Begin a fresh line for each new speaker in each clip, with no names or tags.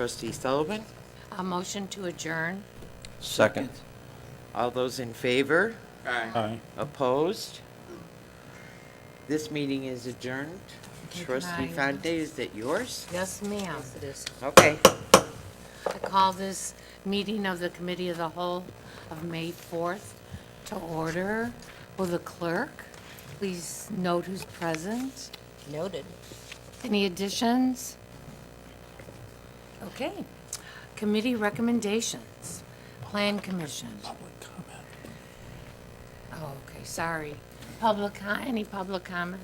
Trustee Sullivan,
A motion to adjourn?
Second.
all those in favor?
Aye.
Opposed? This meeting is adjourned.
Good
Trustee
night.
Fonte, is that yours?
Yes, ma'am.
Okay.
I call this meeting of the Committee of the Whole of May 4th to order. Will the clerk please note who's present?
Noted.
Any additions? Okay. Committee recommendations. Plan Commission. Public comment. Oh, okay, sorry. Public, co- any public comment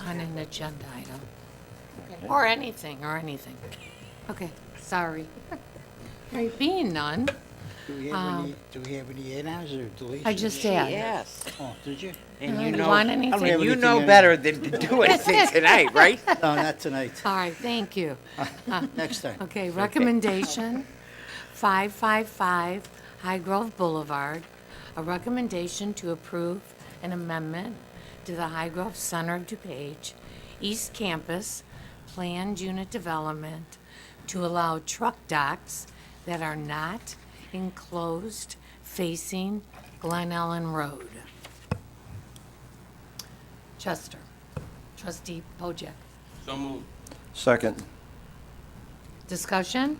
on an agenda item? Or anything, or anything. Okay, sorry. There being none,
Do we have any, do we have any add-ons or deletions?
Um, I just asked.
Yes.
Oh, did you?
And you
Mm-hmm. You
know,
want
and
I don't have
anything?
you
anything
know
on-
better than to do anything tonight, right?
No, not tonight,
All right, thank you.
next time.
Okay, recommendation, 555 High Grove Boulevard, a recommendation to approve an amendment to the High Grove Center of DuPage East Campus Planned Unit Development to allow truck docks that are not enclosed facing Glen Ellen Road. Chester, trustee Pojek,
So moved.
Second.
discussion?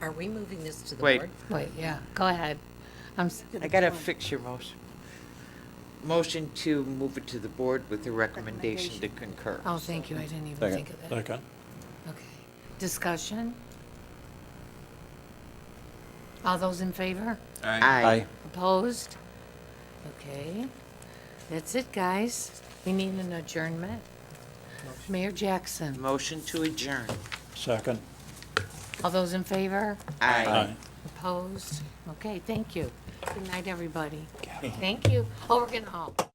Are we moving this to the
Wait.
board?
Wait, yeah, go ahead. I'm, s-
I gotta fix your motion. Motion to move it to the board with the recommendation to concur.
oh, thank you, I didn't even
Second.
think of that. Okay. Okay. Discussion? All those in favor?
Aye.
Opposed? Okay. That's it, guys. We need an adjournment. Mayor Jackson,
Motion to adjourn.
Second.
all those in favor?
Aye.
Opposed? Okay, thank you. Good night, everybody. Thank you. Oh, we're gonna, oh.